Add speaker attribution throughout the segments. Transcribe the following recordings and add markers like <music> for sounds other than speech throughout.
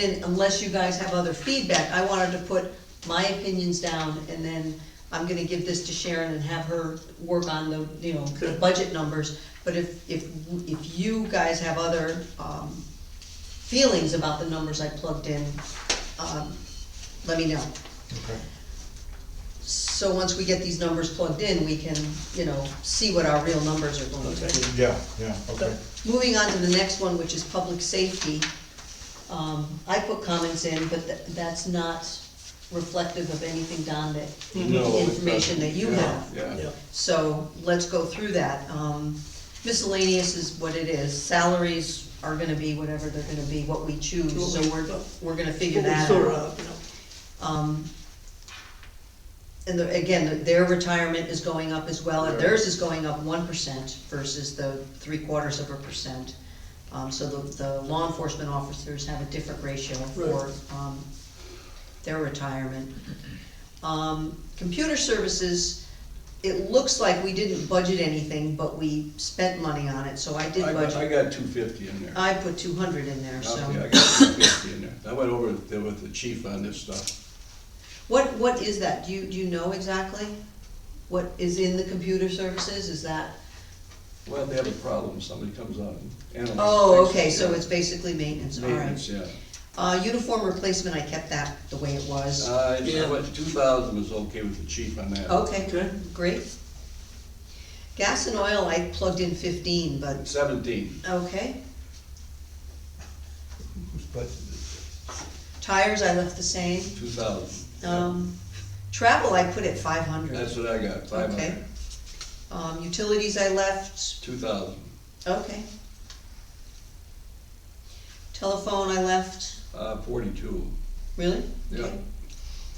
Speaker 1: And unless you guys have other feedback, I wanted to put my opinions down, and then I'm gonna give this to Sharon and have her work on the, you know, the
Speaker 2: Okay.
Speaker 1: budget numbers. But if, if, if you guys have other, um, feelings about the numbers I plugged in, um, let me know.
Speaker 2: Okay.
Speaker 1: So once we get these numbers plugged in, we can, you know, see what our real numbers are going to be.
Speaker 2: Yeah, yeah, okay.
Speaker 1: Moving on to the next one, which is public safety. Um, I put comments in, but tha- that's not reflective of anything, Don, that,
Speaker 3: No, it's not.
Speaker 1: information that you
Speaker 3: Yeah,
Speaker 1: have.
Speaker 3: Yeah,
Speaker 1: so let's go through that. Um, miscellaneous is what it is. Salaries are gonna be whatever they're gonna be, what we choose, so we're, we're gonna figure that out. Um, And the- again, their retirement is going up as well, and theirs is going up one percent versus the three quarters of a percent. Um, so the, the law enforcement officers have a different ratio for,
Speaker 4: Right.
Speaker 1: um, their retirement. Um, computer services, it looks like we didn't budget anything, but we spent money on it, so I did
Speaker 3: I got, I
Speaker 1: budget.
Speaker 3: got two fifty in there.
Speaker 1: I put two hundred in there, so.
Speaker 3: Okay, I got two fifty in there. I went over there with the chief on this stuff.
Speaker 1: What, what is that? Do you, do you know exactly? What is in the computer services? Is that,
Speaker 3: Well, they have a problem, somebody comes out and analyzes.
Speaker 1: oh,
Speaker 3: fixes it,
Speaker 1: okay, so
Speaker 3: yeah.
Speaker 1: it's basically maintenance, all
Speaker 3: Maintenance,
Speaker 1: right.
Speaker 3: yeah.
Speaker 1: Uh, uniform replacement, I kept that the way it was.
Speaker 3: Uh,
Speaker 4: Yeah.
Speaker 3: two thousand was okay with the chief on that.
Speaker 1: Okay,
Speaker 4: Okay.
Speaker 1: great. Gas and oil, I plugged in fifteen, but,
Speaker 3: Seventeen,
Speaker 1: okay.
Speaker 2: But,
Speaker 1: Tires, I left the same.
Speaker 3: two thousand.
Speaker 1: Um, travel, I put at five
Speaker 3: That's
Speaker 1: hundred.
Speaker 3: what I got, five
Speaker 1: Okay.
Speaker 3: hundred,
Speaker 1: Um, utilities, I left,
Speaker 3: two thousand.
Speaker 1: okay. Telephone, I left,
Speaker 3: Uh, forty-two.
Speaker 1: really?
Speaker 3: Yeah.
Speaker 1: Okay.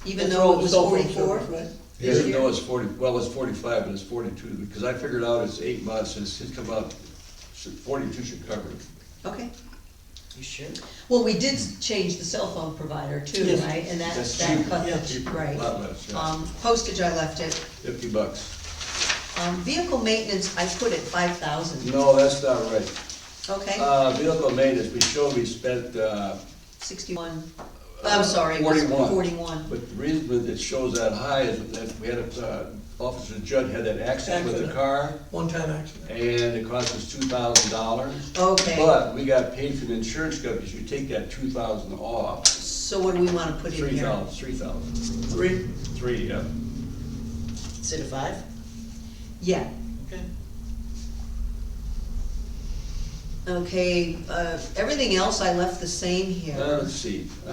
Speaker 1: Even though it was forty-four?
Speaker 3: Yeah, Even though it's forty, well, it's forty-five, but it's forty-two, because I figured out it's eight months, and it's it's come out, forty-two should cover it.
Speaker 1: Okay,
Speaker 4: You sure?
Speaker 1: well, we did change the cell phone provider too,
Speaker 4: Yes.
Speaker 1: right? And that,
Speaker 3: That's
Speaker 1: that
Speaker 3: cheaper,
Speaker 1: cut the,
Speaker 4: yeah.
Speaker 3: A
Speaker 1: right.
Speaker 3: lot less, yeah,
Speaker 1: Um, postage, I left it.
Speaker 3: fifty bucks.
Speaker 1: Um, vehicle maintenance, I put at five thousand,
Speaker 3: No, that's not right.
Speaker 1: okay?
Speaker 3: Uh, vehicle maintenance, we showed we spent, uh,
Speaker 1: Sixty-one, I'm sorry, it was
Speaker 3: 41.
Speaker 1: forty-one.
Speaker 3: uh, but the reason that it shows that high is that we had, a uh, Officer Judd had that accident with the
Speaker 4: Accident.
Speaker 3: car,
Speaker 4: One-time accident.
Speaker 3: and it cost us two thousand dollars.
Speaker 1: Okay,
Speaker 3: But we got paid from the insurance companies, you take that two thousand off,
Speaker 1: so what do we wanna put in
Speaker 3: three
Speaker 1: here?
Speaker 3: thousand, three thousand.
Speaker 4: Three?
Speaker 3: Three, yeah.
Speaker 4: Instead of five?
Speaker 1: Yeah,
Speaker 4: Okay.
Speaker 1: okay, uh, everything else I left the same
Speaker 3: Uh,
Speaker 1: here.
Speaker 3: let's see, uh,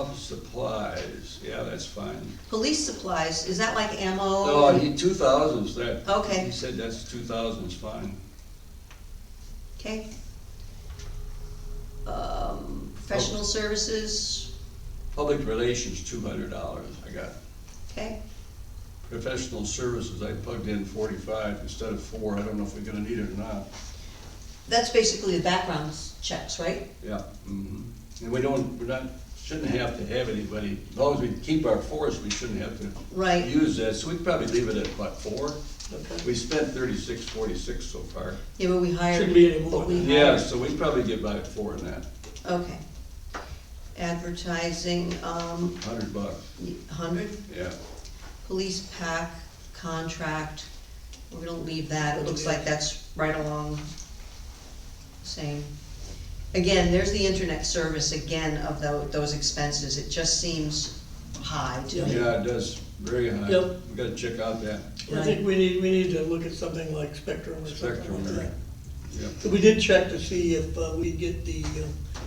Speaker 3: office supplies, yeah, that's fine.
Speaker 1: Police supplies, is that like
Speaker 3: No,
Speaker 1: ammo?
Speaker 3: he, two thousand's that.
Speaker 1: Oh, Okay.
Speaker 3: He said that's two thousand is fine.
Speaker 1: Okay. Um, professional services,
Speaker 3: Public relations, two hundred dollars, I got.
Speaker 1: okay?
Speaker 3: Professional services, I plugged in forty-five instead of four, I don't know if we're gonna need it or not,
Speaker 1: That's basically the background checks, right?
Speaker 3: yeah. mhm. And we don't, we're not, shouldn't have to have anybody, as long as we keep our force, we shouldn't have to
Speaker 1: Right,
Speaker 3: use that, so we'd probably leave it at what, four? We spent thirty-six, forty-six so far.
Speaker 1: yeah, but we hired.
Speaker 4: Shouldn't be anymore.
Speaker 1: but we hired-
Speaker 3: Yeah, so we'd probably get by at four in that,
Speaker 1: Okay. Advertising, um,
Speaker 3: hundred bucks,
Speaker 1: hundred,
Speaker 3: yeah.
Speaker 1: police pack contract, we're gonna leave that, it looks like that's right along same. Again, there's the internet service again of tho- those expenses, it just seems high to me.
Speaker 3: Yeah, it does, very high.
Speaker 4: Yep.
Speaker 3: We gotta check out that
Speaker 4: I think we need, we need to look at something like Spectrum or something
Speaker 3: spectrum
Speaker 4: like
Speaker 3: there.
Speaker 4: that.
Speaker 3: Yep.
Speaker 4: So we did check to see if uh, we'd get the uh,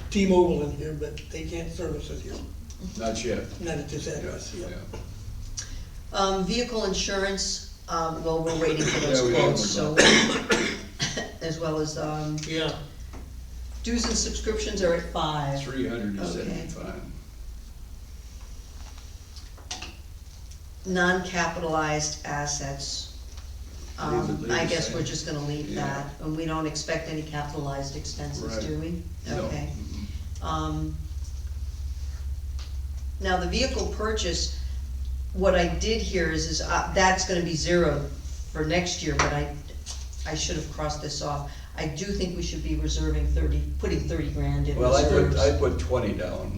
Speaker 4: T-Mobile in here, but they can't service it here,
Speaker 3: Not yet.
Speaker 4: not at this address,
Speaker 3: Yeah.
Speaker 4: yeah.
Speaker 1: Um, vehicle insurance, um, well, we're waiting for
Speaker 3: Yeah,
Speaker 1: those
Speaker 3: we
Speaker 1: quotes, so,
Speaker 3: haven't
Speaker 1: <coughs> as well as, um,
Speaker 4: Yeah.
Speaker 1: dues and subscriptions are at five.
Speaker 3: Three hundred and
Speaker 1: Okay.
Speaker 3: seventy-five.
Speaker 1: Non-capitalized assets,
Speaker 3: Leave
Speaker 1: um,
Speaker 3: it- leave
Speaker 1: I
Speaker 3: it
Speaker 1: guess we're
Speaker 3: same.
Speaker 1: just gonna leave
Speaker 3: Yeah.
Speaker 1: that, and we don't expect any capitalized expenses,
Speaker 3: Right.
Speaker 1: do we?
Speaker 3: No.
Speaker 1: Okay.
Speaker 3: Mhm.
Speaker 1: Um, Now, the vehicle purchase, what I did here is, is uh, that's gonna be zero for next year, but I, I should have crossed this off. I do think we should be reserving thirty, putting thirty grand in
Speaker 3: Well, I
Speaker 1: reserves.
Speaker 3: put, I put twenty down.